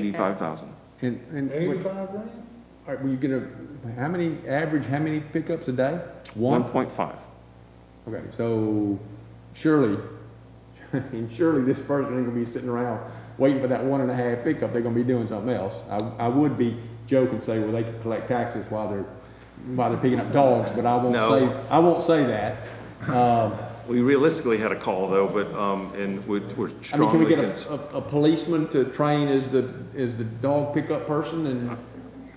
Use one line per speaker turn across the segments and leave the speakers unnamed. Eighty-five thousand.
And, and, what-
Eighty-five grand?
all right, were you gonna, how many, average, how many pickups a day?
One point five.
Okay, so surely, I mean, surely this person ain't gonna be sitting around waiting for that one and a half pickup, they're gonna be doing something else. I, I would be joking, and say, well, they could collect taxes while they're, while they're picking up dogs, but I won't
No.
say, I won't say that. Um,
We realistically had a call though, but, um, and we- we're
I mean, can we
strongly
get a,
against.
a a policeman to train as the, as the dog pickup person and?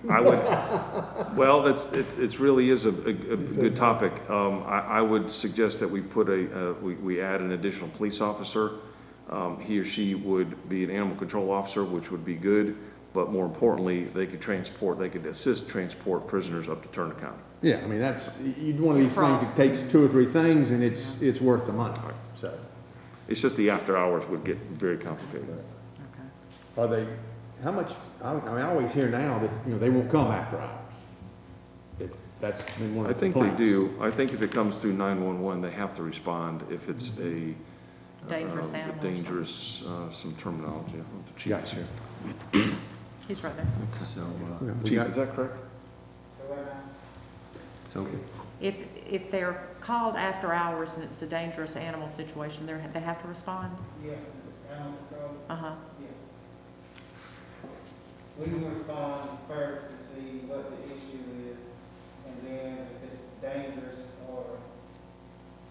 I would, well, that's, it, it really is a, a, a good topic. Um, I, I would suggest that we put a, uh, we, we add an additional police officer. Um, he or she would be an animal control officer, which would be good, but more importantly, they could transport, they could assist transport prisoners up to Turner County.
Yeah, I mean, that's, you'd one of these things, that takes two or three things and it's, it's worth the money, so.
It's just the after hours would get very complicated.
Are they, how much, I, I mean, I always hear now that, you know, they won't come after hours. That- That's been one
I
of the
think they
complaints.
do. I think if it comes through 911, they have to respond if it's a.
Dangerous
uh,
animal or
Dangerous, uh, some terminology. I don't know if the chief is
Gotcha.
here.
He's right there.
So, uh,
Yeah, we
Chief,
got-
is that correct?
so
If, if they're called after hours and it's a dangerous animal situation, they're, they have to respond?
Yeah, animal control,
Uh-huh.
yeah. We will respond first to see what the issue is, and then if it's dangerous or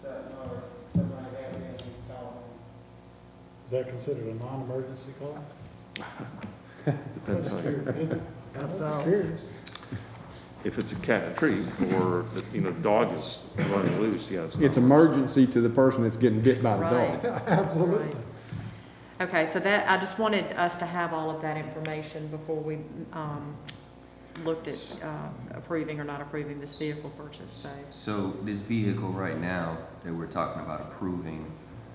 something, or something like that, then we call
Is that considered a non-emergency call?
Depends on,
Is it?
if it's a cat in a tree or, you know, dog is running loose, yeah. not-
It's emergency to the person that's getting bit by the
Right.
dog.
Absolutely. Okay, so that, I just wanted us to have all of that information before we, um, looked at, uh, approving or not approving this vehicle purchase, so.
so this vehicle right now that we're talking about approving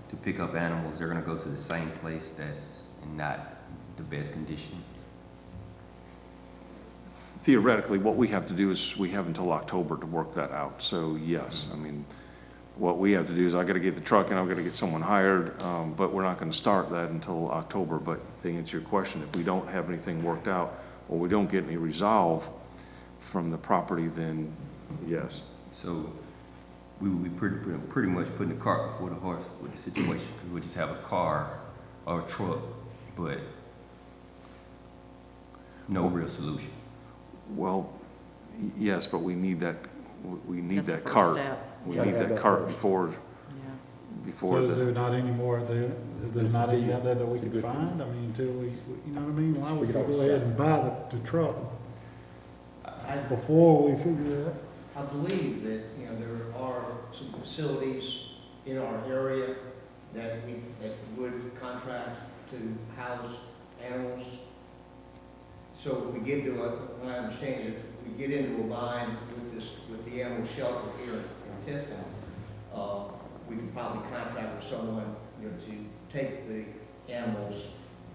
to pick up animals, they're gonna go to the same place that's in not the best condition.
Theoretically, what we have to do is, we have until October to work that out. So yes, I mean, what we have to do is I gotta get the truck and I've gotta get someone hired, um, but we're not gonna start that until October. But to answer your question, if we don't have anything worked out or we don't get any resolve from the property, then yes.
So we would be pretty, pretty- pretty much putting the cart before the horse with the situation, 'cause we just have a car or a truck, but no real solution.
Well, y- yes, but we need that, we- we need
that's the
that
first
cart.
step.
We
Gotta
need
have
that
that
cart
first.
before,
Yeah.
before
So is
the,
there not any more, there, there's not any out there that we can find? I mean, until we, you know what I mean? Why would we go ahead and buy the, the truck before we figure it out?
I believe that, you know, there are some facilities in our area that we, that would contract to house animals. So if we get to, a- what I understand is, if we get into a bind with this, with the animal shelter here in Tiffin, uh, we could probably contract with someone, you know, to take the animals,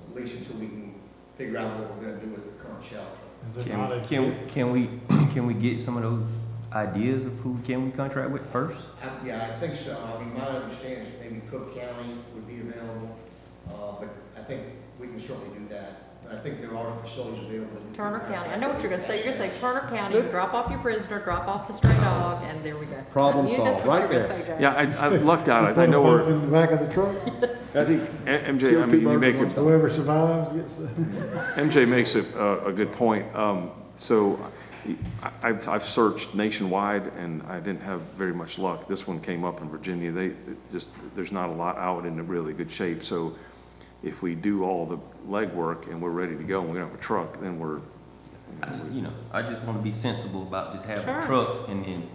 at least until we can figure out what we're gonna do with the current shelter.
Is it not
Can,
a?
can, can we, can we get some of those ideas of who can we contract with first?
I- Yeah, I think so. I mean, my understanding is maybe Cook County would be available, uh, but I think we can certainly do that. But I think there are facilities available. that we can
Turner
contact.
County, I know what you're gonna say, you're gonna say Turner County, drop off your prisoner, drop off the stray dog, and there we go.
Problem
You- that's
solved,
what
right
you were
there.
gonna say, Jay.
yeah, I, I lucked out. I- I
Put a
know
bump
where,
In the back of the truck,
I think M- MJ, I
Kill two
mean, you
birds
make a,
with one
whoever survives gets the.
MJ makes a, a- a good point. Um, So I- I've, I've searched nationwide and I didn't have very much luck. This one came up in Virginia. They, it just, there's not a lot out in really good shape. So if we do all the legwork and we're ready to go and we're gonna have a truck, then we're,
I just- You know, I just wanna be sensible about just having a
Sure.
truck and then,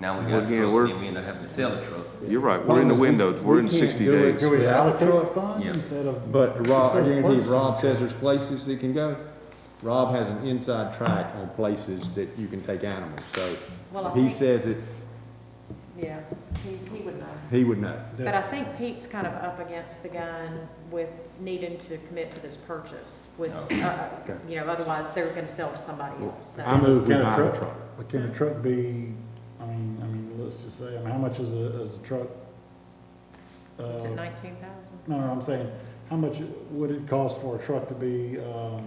now we
Well,
got a
again,
truck
we're-
and we end up having to sell a truck.
you're right, we're in the window, we're in
We can't
sixty
do it.
days.
Can we
Yeah.
allocate funds
Yeah.
instead of?
But Rob, I
instead of
guarantee
purchasing
Rob
a
says
truck?
there's places he can go. Rob has an inside track on places that you can take animals, so
Well, I
if he
think-
says it,
Yeah, he, he would know.
he would know.
Yeah.
But I think Pete's kind of up against the gun with needing to commit to this purchase with,
Oh,
uh,
Okay.
you know, otherwise they're gonna sell to somebody else,
I
so.
move we
Can a
buy the
truck-
truck.
But can a truck be, I mean, I mean, let's just say, I mean, how much is a, is a truck?
It's
uh,
at nineteen thousand.
No, no, I'm saying, how much would it cost for a truck to be, um,